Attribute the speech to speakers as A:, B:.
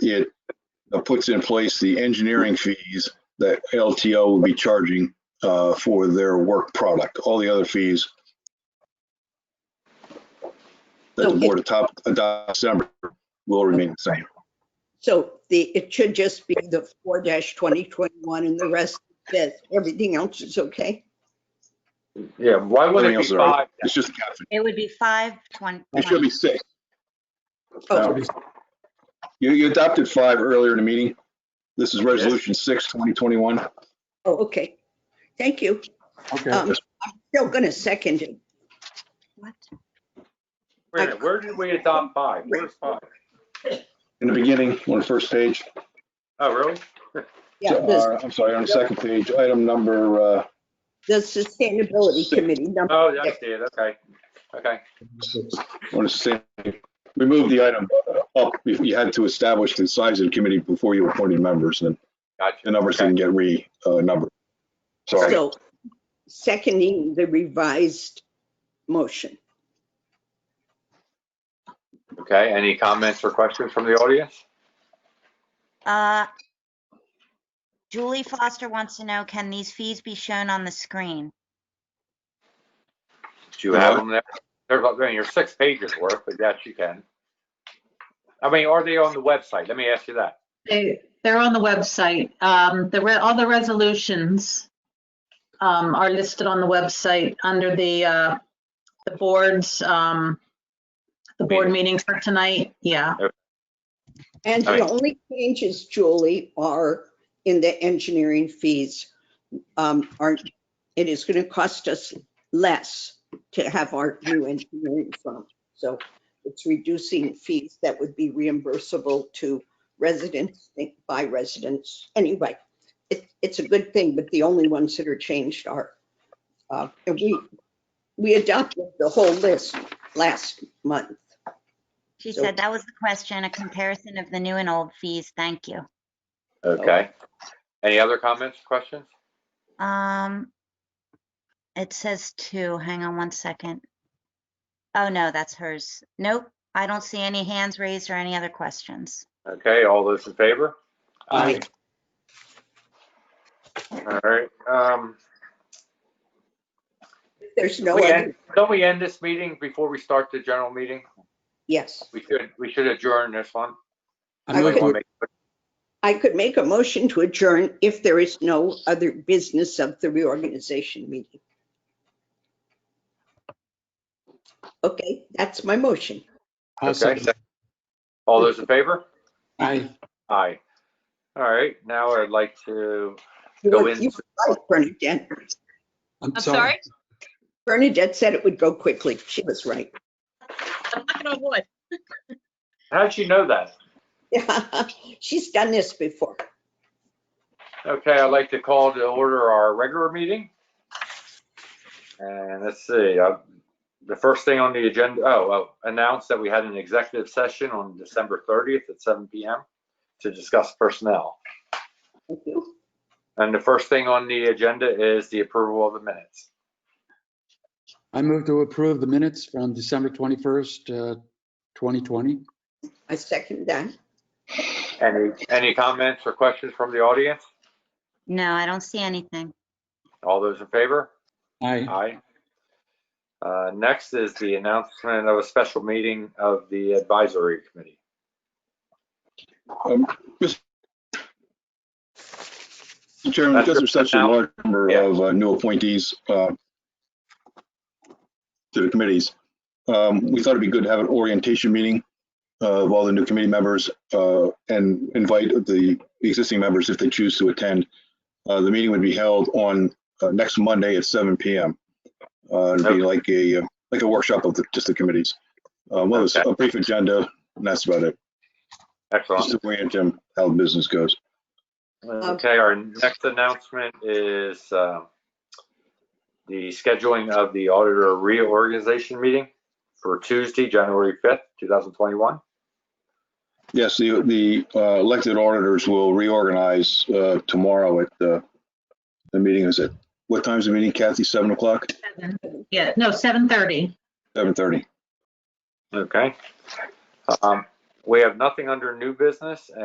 A: it uh, puts in place the engineering fees that LTO will be charging uh, for their work product. All the other fees that the
B: Okay.
A: board atop, adopts December will remain the same.
B: So the, it should just be the four twenty twenty-one and the rest of this. Everything else is okay?
C: Yeah, why would
A: Everything
C: it be
A: else is all right.
C: five?
A: It's just, capping.
D: It would be five twenty.
A: it should be six.
B: Oh,
A: You, you adopted five earlier in the meeting. This is resolution six, 2021.
B: oh, okay. Thank you.
E: Okay,
B: Um, I'm still gonna second it.
C: Wait a minute, where did we adopt five? Where's five?
A: In the beginning, on the first page,
C: Oh, really?
B: Yeah, the-
A: uh, I'm sorry, on the second page, item number, uh,
B: the Sustainability Committee number.
C: Oh, I see it, okay, okay.
A: on the same, we moved the item up. You you had to establish the size of the committee before you appointed members and
C: Gotcha.
A: the numbers didn't get re, uh, numbered. Sorry.
B: So seconding the revised motion.
C: Okay, any comments or questions from the audience?
D: Uh, Julie Foster wants to know, can these fees be shown on the screen?
C: Do you have them there? They're about, they're your six pages worth, but yes, you can. I mean, are they on the website? Let me ask you that.
F: They, they're on the website. Um, the, re- all the resolutions um, are listed on the website under the, uh, the board's, um, the board meetings for tonight. Yeah.
B: And the
C: All right.
B: only changes, Julie, are in the engineering fees. Um, are, it is gonna cost us less to have our new engineering firm. So it's reducing fees that would be reimbursable to residents, by residents. Anyway, it, it's a good thing, but the only ones that are changed are, uh, and we, we adopted the whole list last month.
D: She
B: So-
D: said that was the question, a comparison of the new and old fees. Thank you.
C: Okay. Any other comments, questions?
D: Um, it says two. Hang on one second. Oh, no, that's hers. Nope. I don't see any hands raised or any other questions.
C: Okay, all those in favor?
E: Aye.
C: All right, um,
B: There's no
C: we
B: other,
C: end- don't we end this meeting before we start the general meeting?
B: yes.
C: We should, we should adjourn this one.
E: I'm
B: Okay.
E: looking,
C: Wanna make-
B: I could make a motion to adjourn if there is no other business of the reorganization meeting. Okay, that's my motion.
E: I'll
C: Okay.
E: second.
C: All those in favor?
E: Aye.
C: Aye. All right, now I'd like to,
B: You
C: Go
B: were-
C: in.
B: you were right, Bernadette.
E: I'm
F: I'm
E: sorry.
F: sorry?
B: Bernadette said it would go quickly. She was right.
C: how'd you know that?
B: She's done this before.
C: Okay, I'd like to call to order our regular meeting. And let's see, uh, the first thing on the agenda, oh, oh, announce that we had an executive session on December 30th at 7 PM to discuss personnel.
B: Thank you.
C: And the first thing on the agenda is the approval of the minutes.
E: I move to approve the minutes from December 21st, uh, 2020.
B: I second that.
C: Any, any comments or questions from the audience?
D: No, I don't see anything.
C: All those in favor?
E: Aye.
C: Aye. Uh, Next is the announcement of a special meeting of the advisory committee.
A: Um, Mr. Chairman, because there's such a large number of uh, new appointees uh, to the committees, um, we thought it'd be good to have an orientation meeting uh, of all the new committee members uh, and invite the existing members if they choose to attend. Uh, The meeting would be held on uh, next Monday at 7 PM. Uh, It'd be like a, uh, like a workshop of the- just the committees. Uh, Well, it's a brief agenda, and that's about it.
C: Excellent.
A: Just to orient them how the business goes.
C: Okay, our next announcement is uh, the scheduling of the auditor reorganization meeting for Tuesday, January 5th, 2021.
A: Yes, the, the uh, elected auditors will reorganize uh, tomorrow at the, the meeting is at, what time's the meeting, Kathy? Seven o'clock?
F: Yeah, no, 7:30.
A: Seven thirty?
C: Okay. Um, We have nothing under new business